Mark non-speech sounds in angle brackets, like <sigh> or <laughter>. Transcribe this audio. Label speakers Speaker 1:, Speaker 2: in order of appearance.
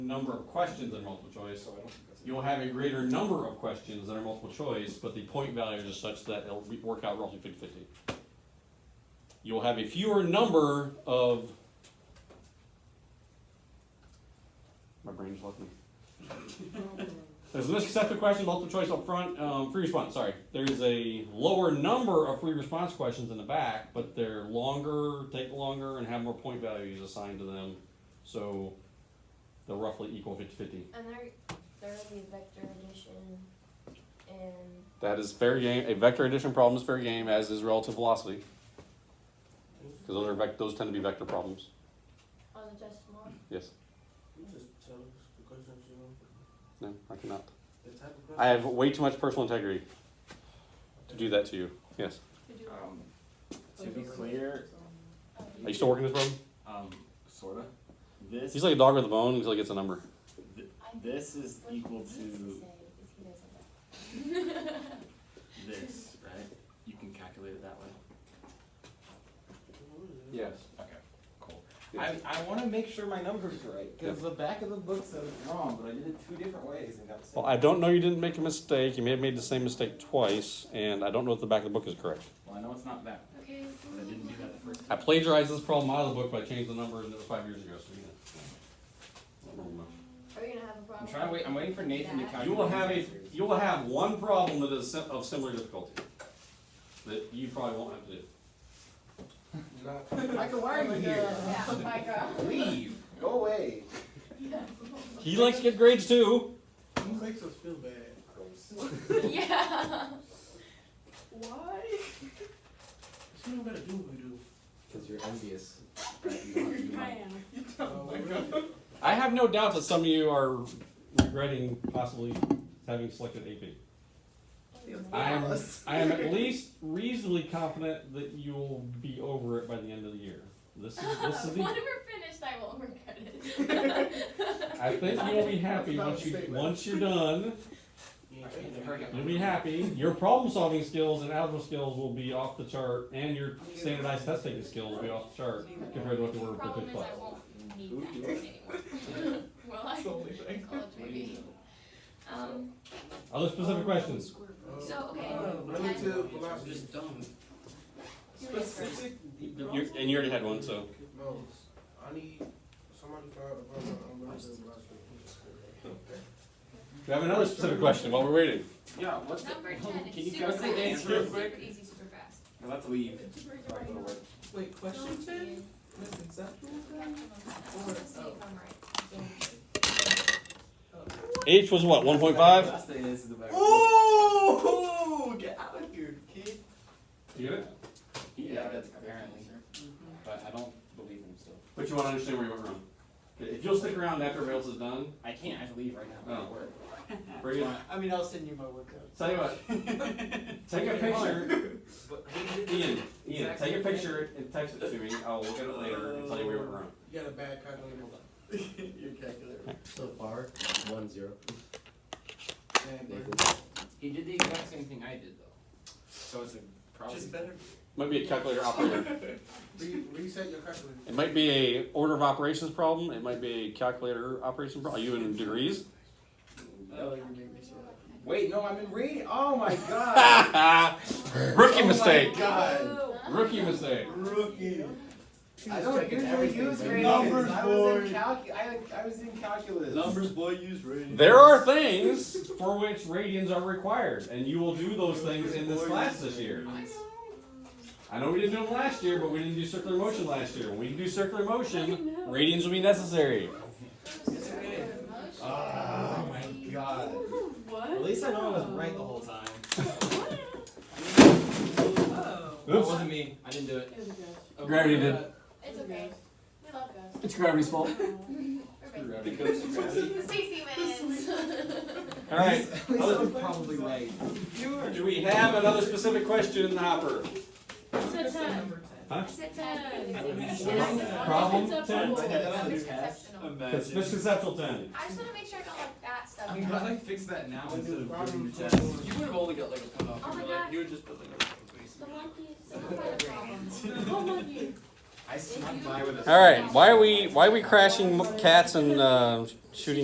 Speaker 1: number of questions than multiple choice.
Speaker 2: So I don't think that's.
Speaker 1: You'll have a greater number of questions than are multiple choice, but the point values are such that it'll re- work out roughly 50 50. You'll have a fewer number of. My brain just left me. There's an accepted question, multiple choice up front, um, free response, sorry. There's a lower number of free response questions in the back, but they're longer, take longer, and have more point values assigned to them. So they'll roughly equal 50 50.
Speaker 3: And there, there will be vector addition and
Speaker 1: That is fair game. A vector addition problem is fair game, as is relative velocity. Because those are vec- those tend to be vector problems.
Speaker 3: on oh, the decimal.
Speaker 1: Yes.
Speaker 4: You just tell us the questions you want.
Speaker 1: No, I cannot.
Speaker 4: The type of questions.
Speaker 1: I have way too much personal integrity to do that to you. Yes.
Speaker 2: Um, to be clear,
Speaker 1: Are you still working this problem?
Speaker 2: um, sorta, this,
Speaker 1: He's like a dog with a bone until he gets a number.
Speaker 2: this is
Speaker 3: What
Speaker 2: equal
Speaker 3: he needs
Speaker 2: to
Speaker 3: say is he doesn't know.
Speaker 2: this, right? You can calculate it that way.
Speaker 1: Yes.
Speaker 2: Okay, cool. I, I wanna make sure my number's right, cause the back of the book says it's wrong, but I did it two different ways and got the same.
Speaker 1: Well, I don't know. You didn't make a mistake. You may have made the same mistake twice, and I don't know if the back of the book is correct.
Speaker 2: Well, I know it's not that,
Speaker 3: Okay.
Speaker 2: but I didn't do that the first
Speaker 1: I
Speaker 2: time.
Speaker 1: plagiarized this problem out of the book, but I changed the numbers, and it was five years ago. So yeah. Not wrong much.
Speaker 3: Are we gonna have a problem?
Speaker 2: I'm trying to wait, I'm waiting for Nathan to
Speaker 3: That?
Speaker 2: calculate.
Speaker 1: You will have a,
Speaker 2: his answers.
Speaker 1: you will have one problem that is sim- of similar difficulty, that you probably won't have to do.
Speaker 2: Michael, why are you here? <laughs>
Speaker 3: Yeah, my God.
Speaker 2: Leave, go away.
Speaker 1: He likes to get grades too.
Speaker 4: Who makes us feel
Speaker 3: <laughs>
Speaker 4: bad?
Speaker 3: Yeah. Why?
Speaker 4: She don't gotta do what we do.
Speaker 2: Cause you're envious. right? You don't have to do mine.
Speaker 5: am.
Speaker 4: Oh my god.
Speaker 1: I have no doubt that some of you are regretting possibly having selected AP. I am, I am at least reasonably confident that you'll be over it by the end of the year. This is, this is
Speaker 3: When
Speaker 1: the,
Speaker 3: we're finished, I won't regret <laughs> it.
Speaker 1: I think you'll be happy once you, once you're done,
Speaker 4: You ain't
Speaker 2: Alright,
Speaker 4: changing
Speaker 2: hurry up.
Speaker 4: nothing.
Speaker 1: you'll be happy. Your problem solving skills and algebra skills will be off the chart, and your standardized test taking skills will be off the chart compared to what they were for
Speaker 3: Problem
Speaker 1: the
Speaker 3: is, I
Speaker 1: class.
Speaker 3: won't need that anymore. <laughs> Well, I, in college maybe. Um,
Speaker 1: Other specific questions?
Speaker 3: so,
Speaker 2: Oh,
Speaker 3: okay.
Speaker 4: Uh,
Speaker 3: ten.
Speaker 4: Relative velocity.
Speaker 6: Just dumb.
Speaker 3: You're gonna start.
Speaker 4: Specific.
Speaker 1: You, and you already had one, so.
Speaker 4: No, I need somebody to file a problem on relative velocity.
Speaker 1: We have another specific question while we're waiting.
Speaker 2: Yeah, what's the,
Speaker 3: Number ten,
Speaker 2: Oh, can you
Speaker 3: it's super
Speaker 2: calculate the
Speaker 3: fast,
Speaker 2: answer real
Speaker 3: super,
Speaker 2: quick?
Speaker 3: super easy, super fast.
Speaker 2: No, Let's leave. Sorry, go to work.
Speaker 6: Wait, question ten? That's exactly what I-
Speaker 1: H was what, one point five?
Speaker 2: Last thing is the better.
Speaker 6: Ooh, get out of here, kid.
Speaker 1: You get it?
Speaker 2: Yeah, that's apparently, but I don't believe him still.
Speaker 1: But you wanna understand where you went wrong. If you'll stick around after everybody else is done,
Speaker 2: I can't, I have to leave right now. I'm at
Speaker 1: Oh.
Speaker 6: <laughs>
Speaker 2: work.
Speaker 1: bring it,
Speaker 6: I mean, I'll send you my workout.
Speaker 1: tell you what, take a picture,
Speaker 6: But who did-
Speaker 1: Ian, Ian, take a picture and text it to me, I'll look at it later and tell you where you went wrong.
Speaker 4: You got a bad calculator.
Speaker 6: Your calculator.
Speaker 7: So far, one zero.
Speaker 4: Man, bro.
Speaker 2: He did the exact same thing I did though. So it's a probably.
Speaker 6: Just better.
Speaker 1: Might be a calculator operator.
Speaker 4: Re- Reset your calculator.
Speaker 1: It might be a order of operations problem, it might be a calculator operation problem. Are you in degrees? <laughs>
Speaker 6: Oh, you made me so happy.
Speaker 2: Wait, no, I'm in reading. Oh
Speaker 6: <laughs>
Speaker 2: my god.
Speaker 1: Rookie
Speaker 6: Oh my
Speaker 1: mistake,
Speaker 6: God.
Speaker 1: rookie mistake.
Speaker 6: Rookie.
Speaker 2: I don't usually use
Speaker 6: Numbers,
Speaker 2: grades. I was in
Speaker 6: boy.
Speaker 2: calcu- I, I was in calculus.
Speaker 6: boy, use radio.
Speaker 1: There are things for which radians are required, and you will do those things in this class this year. I know we didn't do them last year, but we didn't do circular motion last year. When we do circular motion, radians will be necessary.
Speaker 2: Ah,
Speaker 6: Oh my god.
Speaker 5: What?
Speaker 6: At least I know I was right the whole time. <laughs>
Speaker 5: Oh.
Speaker 6: That wasn't me. I didn't do it.
Speaker 5: It was a ghost.
Speaker 1: Gravity did.
Speaker 3: It's okay. We love ghosts.
Speaker 1: It's gravity's fault.
Speaker 3: We're
Speaker 2: It goes to gravity.
Speaker 3: basic. Sixty minutes.
Speaker 1: All right.
Speaker 6: I was probably right.
Speaker 1: Do we have another specific question in the hopper?
Speaker 5: It's a ten.
Speaker 3: I said ten.
Speaker 6: I Oh wouldn't
Speaker 3: It's
Speaker 6: say
Speaker 3: not-
Speaker 1: Problem
Speaker 5: It's a
Speaker 1: ten.
Speaker 5: bubble.
Speaker 3: it's misconceptional.
Speaker 1: It's misconceptual ten.
Speaker 3: I just wanna make sure I got like that stuff.
Speaker 6: I'm glad I fixed that now instead of putting
Speaker 4: Problem
Speaker 6: your test.
Speaker 4: solved.
Speaker 6: You would have only got like a cutoff.
Speaker 3: Oh my
Speaker 6: you were like,
Speaker 3: God.
Speaker 6: you would just put like a.
Speaker 3: The monkey, someone find a problem.
Speaker 5: Oh, monkey.
Speaker 2: I snuck by with a.
Speaker 1: All right. Why are we why are we crashing cats and uh, shooting?